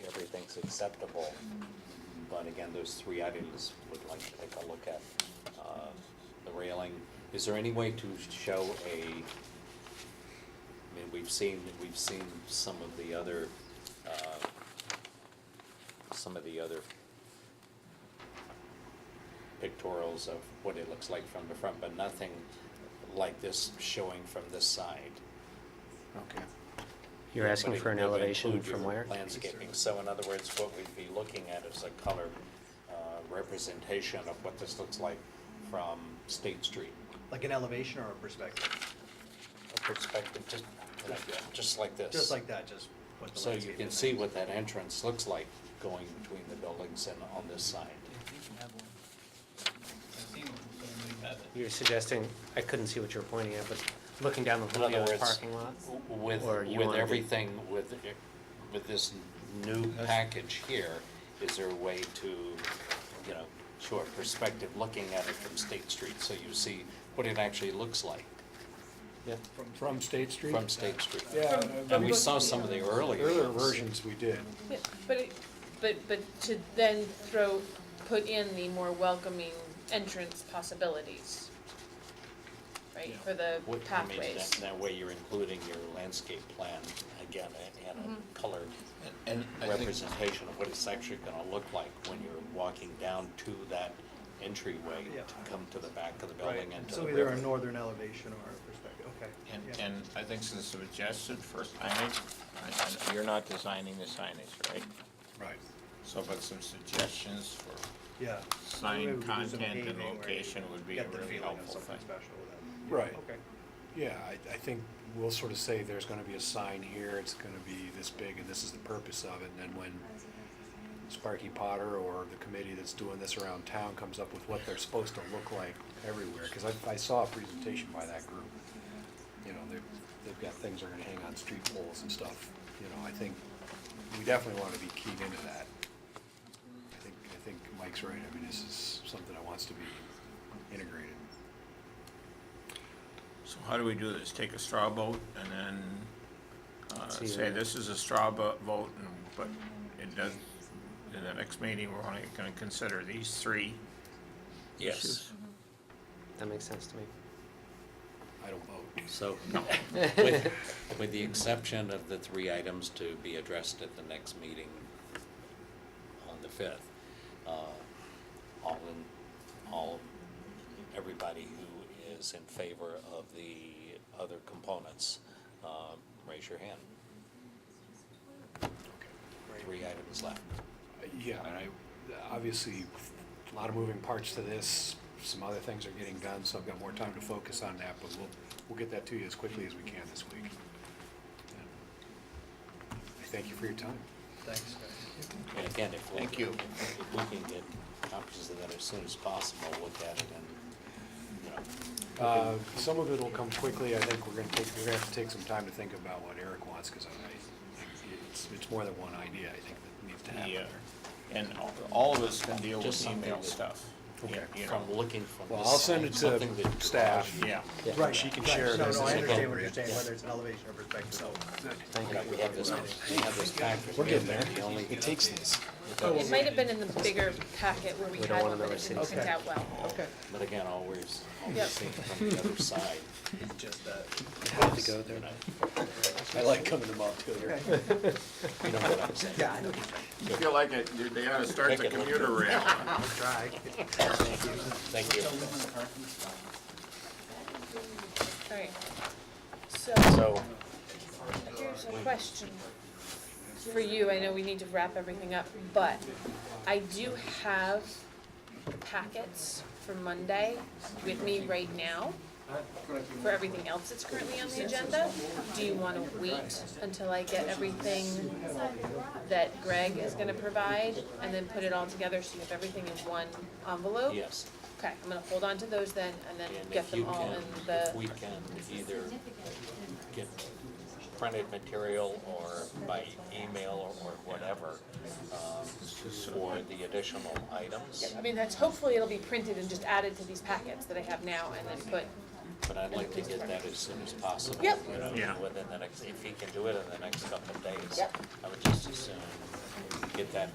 acceptable. But again, those three items would like to take a look at. Uh, The railing, is there any way to show a, I mean, we've seen, we've seen some of the other, uh, some of the other pictorials of what it looks like from the front, but nothing like this showing from this side. Okay. You're asking But it- for an it would elevation include your from where? Landscaping, so in other words, what we'd be looking at is a color uh, representation of what this looks like from State Street. Like an elevation or a perspective? A perspective, just, like- just like this. Just like that, just what the So you landscape can is. see what that entrance looks like going between the buildings and on this side. You're suggesting, I couldn't see what you were pointing at, but looking down the In other Julio's words, parking lot? w- With, Or you with wanna be- everything, with, with this new package here, is there a way to, you know, show a perspective looking at it from State Street, so you see what it actually looks like Yeah. From State Street? from State Street? Yeah. And we saw some of the earlier. Earlier ones. versions we did. Yeah, But, it- but, but to then throw, put in the more welcoming entrance possibilities, right, for the What- I mean, pathways. that- That way you're including your landscape plan, again, and and a colored And I think, representation of what it's actually gonna look like when you're walking down to that entryway Yeah. to come to the back of the Right, building and to the so river. either a northern elevation or a perspective, okay. and, yeah. and I think since suggested for signage, I- I- you're not designing the signage, right? Right. So, but some suggestions for Yeah. Maybe sign we could do some content paving and where you location would be a Get the really feeling of helpful something thing. special with that. Right. Okay. Yeah, I, I think we'll sort of say there's gonna be a sign here, it's gonna be this big, and this is the purpose of it, and then when Sparky Potter or the committee that's doing this around town comes up with what they're supposed to look like everywhere, because I, I saw a presentation by that group. You know, they've, they've got things that are gonna hang on street poles and stuff, you know, I think, we definitely wanna be keyed into that. I think, I think Mike's right, I mean, this is something that wants to be integrated. So how do we do this? Take a straw vote and then, uh, See say the- this is a straw vo- vote, and, but it does, in the next meeting, we're only gonna consider these three. Yes, issues? That makes sense to me. I don't vote. so, with, with the exception of the three items to be addressed at the next meeting on the fifth, uh, all in, all, everybody who is in favor of the other components, uh, raise your hand. Three items left. Yeah, and I, obviously, a lot of moving parts to this, some other things are getting done, so I've got more time to focus on that, but we'll, we'll get that to you as quickly as we can this week. And I thank you for your time. Thanks, guys. And again, if we. Thank you. If we can get copies of that as soon as possible, look at it and, you know, Uh, Some of it'll come quickly, I think we're gonna take, we're gonna have to take some time to think about what Eric wants, because I, it's, it's more than one idea, I think, that needs to happen. Yeah, uh, and all- all of us can deal Just with something email that- stuff. Okay. You know, from looking from Well, this I'll send side, it something that to you- staff. yeah. Right, she can share Right, it No, as no, I it's understand what you're appropriate. saying, whether it's an elevation or perspective, so. Thank Yeah, you. We have this, we have this packet. We're getting We have there. The only. It takes this. It might have been in the bigger packet where we We don't had want one, but another it didn't city. print out well. Okay. But again, always, always Yep. seeing from the other side, It's just that. to go there. you know, I like coming to Montpelier. you know what I'm saying? Yeah, I know. You feel like it, you- they ought to start the commuter rail. I'll try. Thank you. Alright, so So, here's a question for you, I know we need to wrap everything up, but I do have packets for Monday with me right now for everything else that's currently on the agenda. Do you wanna wait until I get everything that Greg is gonna provide and then put it all together so you have everything in one envelope? yes, Okay, I'm gonna hold on to those then and then and Oh. get if you them all can, in if the, we can either get printed material or by email or whatever, um, for the additional items. I mean, that's, hopefully it'll be printed and just added to these packets that I have now and then put, But I'd like to get that as soon as possible. Yep. you know, Yeah. Within the next, if he can do it in the next couple of days. Yep. I would just as soon get that